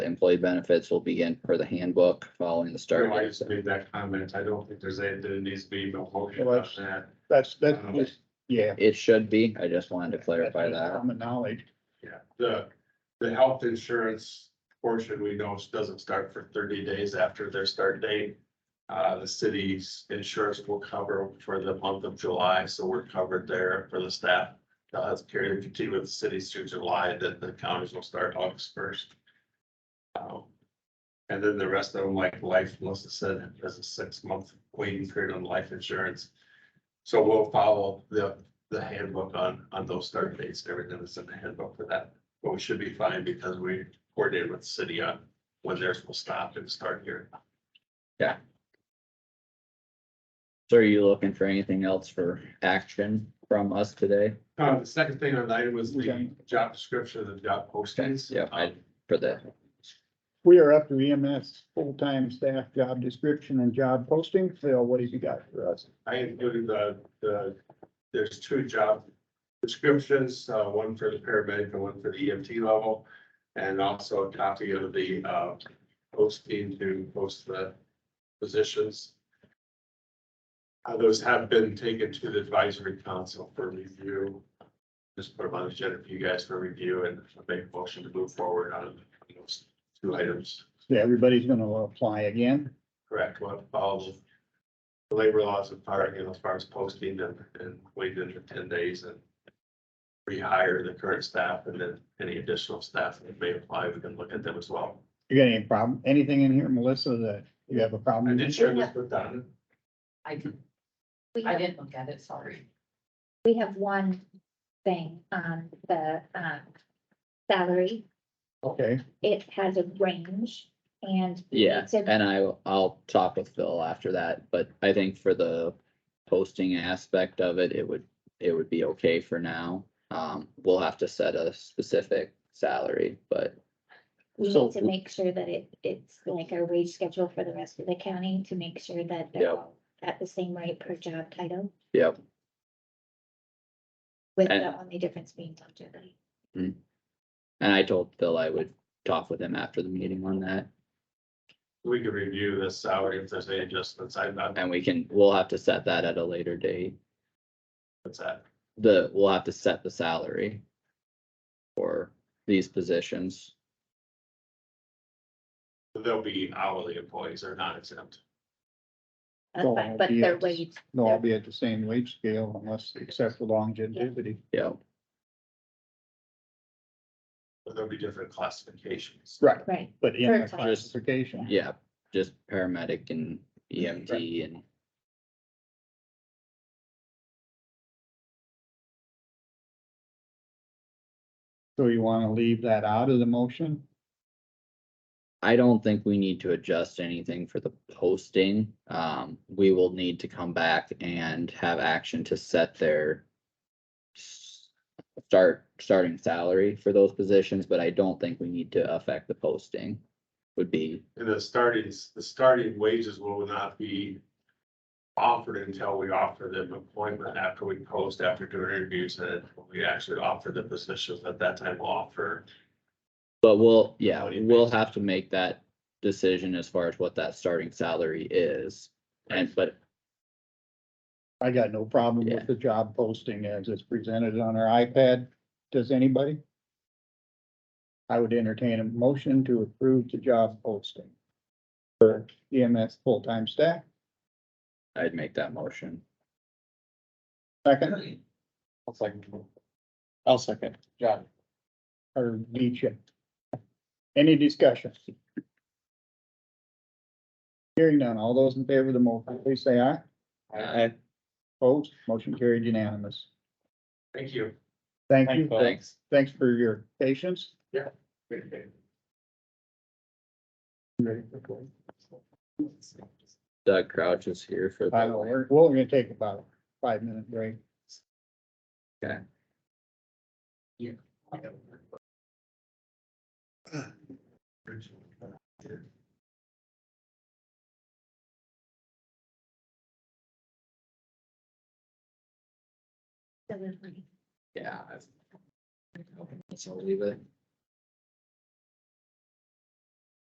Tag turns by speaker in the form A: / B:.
A: Employee benefits will begin per the handbook following the
B: I
A: start. date.
B: just made that comment. I don't think there's a, there needs to be no motion
C: Well,
B: on
C: that's-
B: that.
C: That's, that's, just- yeah.
A: It should be. I just wanted Um, to clarify
C: That's just
A: that.
C: Common knowledge.
B: Yeah, the, the health insurance portion we know doesn't start for thirty days after their start date. Uh, the city's insurance will cover for the month of July, so we're covered there for the staff. Uh, it's period to continue with the cities through July, then the counties will start August first. Um, And then the rest of them, like life, Melissa said, there's a six-month waiting period on life insurance. So we'll follow the the handbook on, on those start dates, everything that's in the handbook for that. But we should be fine because we coordinated with the city on when theirs will stop and start here.
A: So are you looking for anything else for action from us today
B: Uh, the second thing on that was the job description and job postings. Um,
A: Yeah, I- for the
C: We are up to EMS full-time staff job description and job posting. Phil, what have you got for us?
B: I included the, the, there's two job descriptions, uh, one for the paramedic and one for the EMT level. And also a copy of the, uh, posting to post the positions. Uh, those have been taken to the advisory council for review. Just put them on the agenda for you guys for review and make a motion to move forward on those two items.
C: So everybody's gonna apply again.
B: Correct, well, follow the labor laws of fire, you know, as far as posting and, and waiting for ten days and rehire the current staff and then any additional staff that may apply, we can look at them as well.
C: You got any problem, anything in here, Melissa, that you have a
B: I
C: problem?
B: did
C: with?
B: share this with Don.
D: I didn't,
E: We
D: I
E: have,
D: didn't look at it, sorry.
E: we have one thing on the, um, salary.
C: Okay,
E: It has a range and.
A: Yeah,
E: It's a-
A: and I, I'll talk with Phil after that, but I think for the posting aspect of it, it would, it would be okay for now. Um, we'll have to set a specific salary, but
E: We
C: So-
E: need to make sure that it, it's like our wage schedule for the rest of the county to make sure that they're
A: Yep.
E: all at the same rate per job title.
A: Yep.
E: With
A: And-
E: the only difference being longevity.
A: And I told Phil I would talk with him after the meeting on that,
B: We can review this salary if there's any adjustments. I'm not,
A: and we can, we'll have to set that at a later date.
B: that's that.
A: The, we'll have to set the salary for these positions.
B: They'll be hourly employees or not exempt.
E: That's
C: So
E: fine,
C: it'll
E: uh, But
C: be
E: their
C: at the s-
E: wage,
C: they'll all be at the same wage scale unless, except for longevity.
A: Yeah,
B: but There'll be different classifications.
C: Right.
E: right,
C: But in the
E: Perfect.
C: classification.
A: yeah, just paramedic and EMT and
C: So you wanna leave that out of the motion?
A: I don't think we need to adjust anything for the posting. Um, we will need to come back and have action to set their s- start, starting salary for those positions, but I don't think we need to affect the posting would be,
B: And the starting, the starting wages will not be offered until we offer them appointment after we post, after doing interviews, and when we actually offer the positions at that time we'll offer.
A: but we'll, yeah,
B: How do you
A: we'll
B: fix it?
A: have to make that decision as far as what that starting salary is. And, but
C: I got no problem
A: Yeah.
C: with the job posting as it's presented on our iPad. Does anybody? I would entertain a motion to approve the job posting. For EMS full-time staff,
A: I'd make that motion.
C: second,
F: I'll second. I'll second, John.
C: or each. Any discussion? Hearing none, all those in favor of the motion, please say aye.
A: Aye.
C: Opposed, motion carried unanimous.
B: Thank you.
C: Thank
F: Thank
C: you,
F: you.
A: Thanks.
C: thanks for your patience.
A: Doug Crouch is here for. the-
C: I know, we're, we're gonna take about a five-minute break.
E: delivery.
A: Yeah. I- So leave it.